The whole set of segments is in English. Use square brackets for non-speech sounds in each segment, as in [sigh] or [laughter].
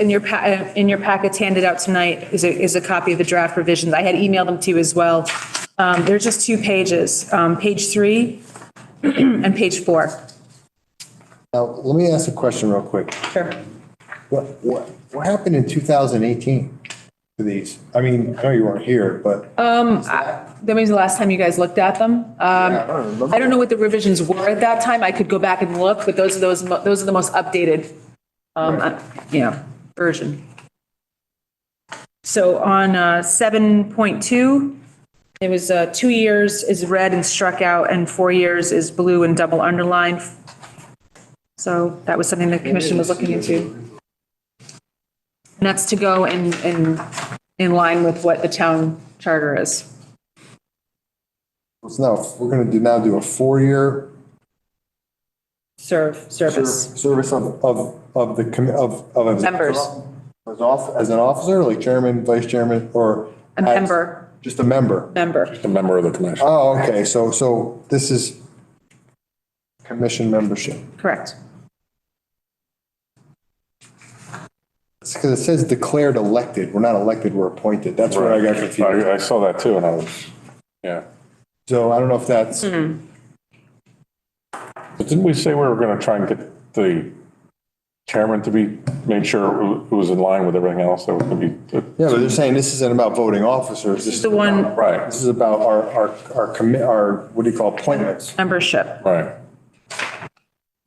in your, pa- uh, in your packets handed out tonight is a, is a copy of the draft revisions. I had emailed them to you as well. Um, They're just two pages, um, page three [clears throat] and page four. Now, let me ask a question real quick. Sure. What, what, what happened in 2018 to these? I mean, I know you weren't here, but. That was the last time you guys looked at them. Um, Yeah, I don't remember. I don't know what the revisions were at that time. I could go back and look, but those are those, mo- those are the most updated, um, uh, you know, version. So on, uh, seven point two, it was, uh, two years is red and struck out and four years is blue and double underlined. So that was something the commission was looking into. And that's to go in, in, in line with what the town charter is. So now, we're gonna do, now do a four-year Serve, service. service of, of, of the, commi- of, of. a- Members. As off, as an officer, like chairman, vice chairman, or? A member, Just a member? member. a member of the commission. Oh, okay, so, so this is commission membership. Correct. Because it says declared elected. We're not elected, we're appointed. That's where I got confused. I, I saw that too and I was, yeah. So I don't know if Hmm. that's, But didn't we say we were gonna try and get the chairman to be, made sure it was in line with everything else that was gonna be? yeah, but they're saying this isn't about voting officers. This is The one, Right, This is about our, our, our commit, our, what do you call, it, appointments. membership. right.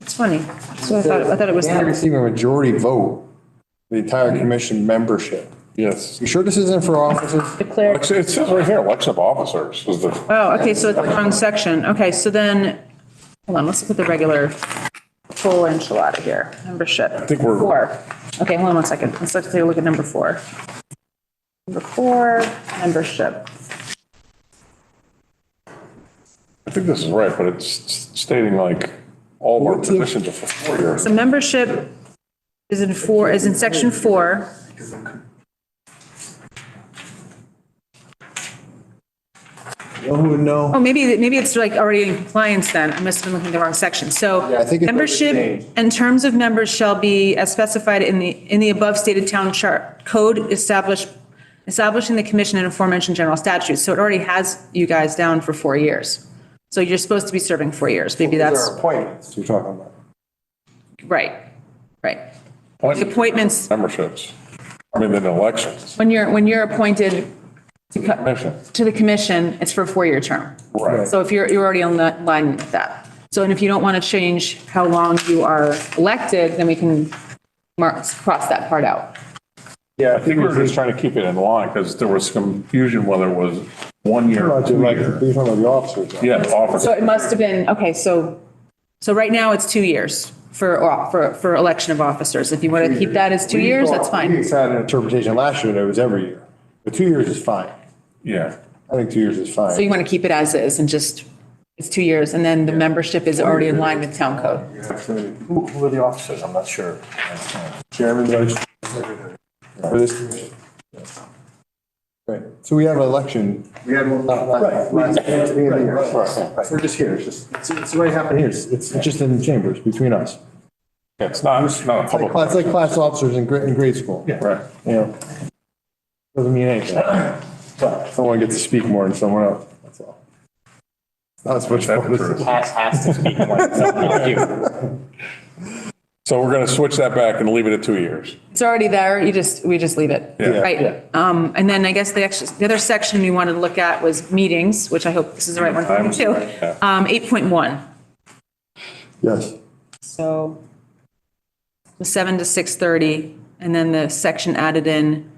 It's funny. So I thought, I thought it was, They had to receive a majority vote, the entire commission membership. Yes. You sure this isn't for officers? declared. It says right here, election of officers is the, Oh, okay, so it's the wrong section. Okay, so then, hold on, let's look at the regular full enchilada here, membership. I think we're- Four. Okay, hold on one second. Let's look- take a look at number four. Number four, membership. I think this is right, but it's stating like all of our positions are for four years. So membership is in four, is in section four. Who would know? Oh, maybe, maybe it's like already in compliance then. I must have been looking at the wrong section. So Yeah, I think it's membership changed. and terms of members shall be as specified in the, in the above stated town chart code established, establishing the commission and aforementioned general statutes. So it already has you guys down for four years. So you're supposed to be serving four years. Maybe that's, Appointments you're talking about. right, right. The appointments, Memberships. I mean, then elections, when you're, when you're appointed commission. to the commission, it's for a four-year term. Right. So if you're, you're already on that line with that. So, and if you don't want to change how long you are elected, then we can mark, cross that part out. Yeah, I think we were just trying to keep it in line because there was confusion whether it was one year or two Like, year. you're talking about the officers. Yeah, office. So it must have been, okay, so, so right now it's two years for, or for, for election of officers. If you want to keep that as two years, that's We fine. had an interpretation last year that it was every year, but two years is fine. Yeah. I think two years is So fine. you want to keep it as is and just, it's two years and then the membership is already in line with town code. Who who are the officers? I'm not sure. Chairman, vice. For this commission. Right, so we have an election. We had one. We're just here, it's just, it's, it's already happened here, it's, it's just in the chambers between us. Yeah, It's not, it's not a It's like, public. class- it's like class officers in grade, in grade school. Right. You know, doesn't mean anything. Someone gets to speak more than someone else, that's all. Not as much. That's fun as- true. Has, has to speak more than someone like you. So we're going to switch that back and leave it at two years. It's already there, you just, we just leave it. Yeah. Right. Um, and then I guess the extra, the other section we wanted to look at was meetings, which I hope this is the right one for you too. Yeah. Um, eight point one, Yes. so the seven to six thirty, and then the section added in,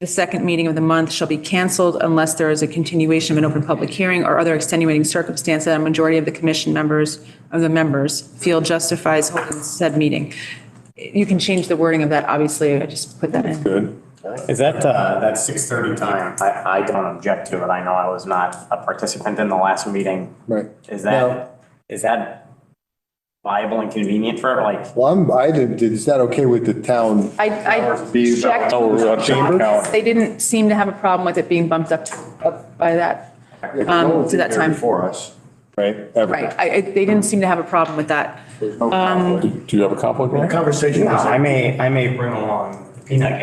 the second meeting of the month shall be canceled unless there is a continuation of an open public hearing or other extenuating circumstance that a majority of the commission members, of the members, feel justifies holding said meeting. You can change the wording of that, obviously, I just put that in. Good. Is that, uh, that six thirty time? I, I don't object to it. I know I was not a participant in the last meeting. Right. Is No. that, is that viable and convenient for, like, Well, I'm, I did, did- is that okay with the town? I, I Be checked. Oh, we're on chamber calendar. They didn't seem to have a problem with it being bumped up, up by that, um, to that time. For us, right? Ever. Right, I, I- they didn't seem to have a problem with that. Um, There's no conflict. Do you have a conflict? Ryan? Conversation No, was, I may, I may bring along peanut gallery.